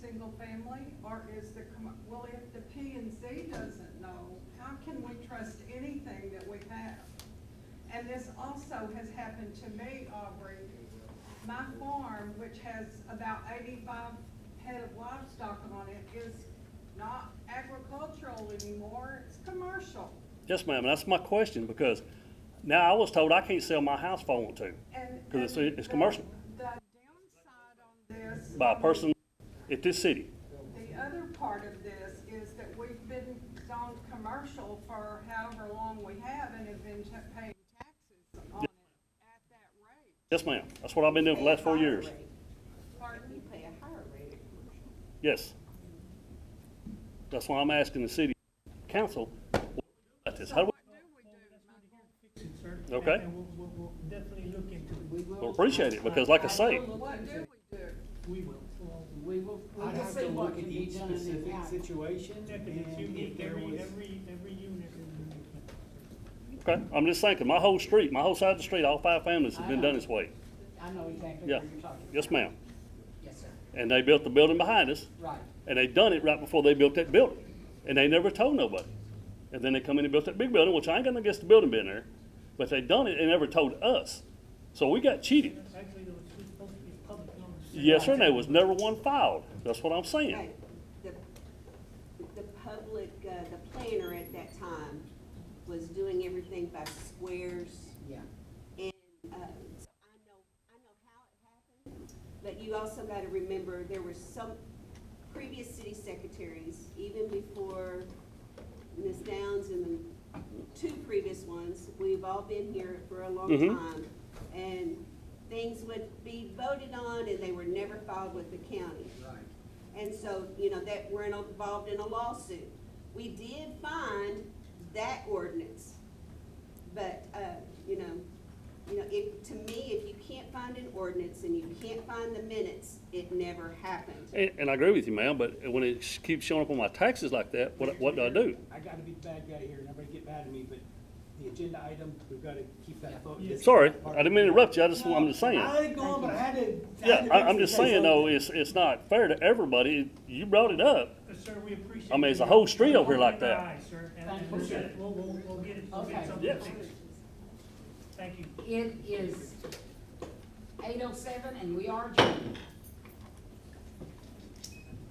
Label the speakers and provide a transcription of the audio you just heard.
Speaker 1: single family, or is the, com- well, if the P and Z doesn't know, how can we trust anything that we have? And this also has happened to me, Aubrey. My farm, which has about eighty-five head of livestock on it, is not agricultural anymore, it's commercial.
Speaker 2: Yes, ma'am, that's my question, because now I was told I can't sell my house if I want to,
Speaker 1: And.
Speaker 2: 'Cause it's-
Speaker 1: and
Speaker 2: it's
Speaker 1: the-
Speaker 2: commercial.
Speaker 1: The downside on this.
Speaker 2: by a person at this city.
Speaker 1: The other part of this is that we've been zoned commercial for however long we have and have been ta- paying taxes on it at that rate.
Speaker 2: Yes, ma'am, that's what I've been doing for the last four years.
Speaker 1: Pardon?
Speaker 3: You pay a higher rate of commercial.
Speaker 2: Yes. That's why I'm asking the city council about this. How do
Speaker 1: What do we do?
Speaker 4: fix it, sir.
Speaker 2: Okay.
Speaker 4: And- And we'll, we'll, we'll definitely look into
Speaker 3: We
Speaker 4: it.
Speaker 2: we
Speaker 3: will.
Speaker 2: appreciate it? Because like I say,
Speaker 1: Mike? What do we do?
Speaker 4: We will. Well,
Speaker 3: We will, we
Speaker 5: I'd
Speaker 3: will
Speaker 5: have
Speaker 3: see
Speaker 5: to
Speaker 3: what
Speaker 5: look at
Speaker 3: can be
Speaker 5: each
Speaker 3: done and
Speaker 5: specific
Speaker 3: how.
Speaker 5: situation
Speaker 4: Yeah, 'cause it's
Speaker 5: and if
Speaker 4: unique,
Speaker 5: there
Speaker 4: every,
Speaker 5: was.
Speaker 4: every, every unit is unique.
Speaker 2: okay, I'm just thinking, my whole street, my whole side of the street, all five families have been done this way.
Speaker 3: I know exactly
Speaker 2: Yeah,
Speaker 3: what you're talking about.
Speaker 2: yes, ma'am.
Speaker 3: Yes, sir,
Speaker 2: And they built the building behind us,
Speaker 3: right.
Speaker 2: and they done it right before they built that building. And they never told nobody. And then they come in and built that big building, which I ain't got nothing against the building being there, but they done it and never told us. So we got cheated.
Speaker 4: Actually, there was supposed to be public notice.
Speaker 2: Yes, sir, and there was never one filed. That's what I'm saying.
Speaker 6: Right. The, the public, uh, the planner at that time was doing everything by squares
Speaker 3: Yeah.
Speaker 6: and, uh, so I know, I know how it happened. But you also gotta remember, there were some previous city secretaries, even before Ms. Downs and the two previous ones, we've all been here for a long
Speaker 2: Mhm.
Speaker 6: time. And things would be voted on and they were never filed with the county. And so, you know, that, we're involved in a lawsuit. We did find that ordinance, but, uh, you know, you know, if, to me, if you can't find an ordinance and you can't find the minutes, it never happened.
Speaker 2: And, and I agree with you, ma'am, but when it sh- keeps showing up on my taxes like that, what, what do I do?
Speaker 5: I gotta be the bad guy here, and everybody get mad at me, but the agenda item, we've gotta keep that vote.
Speaker 4: Yeah.
Speaker 2: Sorry, I didn't mean to interrupt you, I just, I'm just saying.
Speaker 5: I ain't going, but I had to. I had
Speaker 2: Yeah,
Speaker 5: to
Speaker 2: I,
Speaker 5: fix
Speaker 2: I'm
Speaker 5: it,
Speaker 2: just
Speaker 5: say
Speaker 2: saying though,
Speaker 5: something.
Speaker 2: it's, it's not fair to everybody. You brought it up.
Speaker 4: Uh, Sir, we appreciate.
Speaker 2: I mean, it's a
Speaker 4: you
Speaker 2: whole street over here like
Speaker 4: opening our
Speaker 2: that.
Speaker 4: eyes, sir, and-
Speaker 3: Thank
Speaker 4: and
Speaker 3: you.
Speaker 4: we'll get it. We'll, we'll, we'll get it, we'll get
Speaker 3: Okay.
Speaker 4: something
Speaker 2: Yes.
Speaker 4: fixed. Thank you.
Speaker 3: It is eight oh seven and we are adjourned.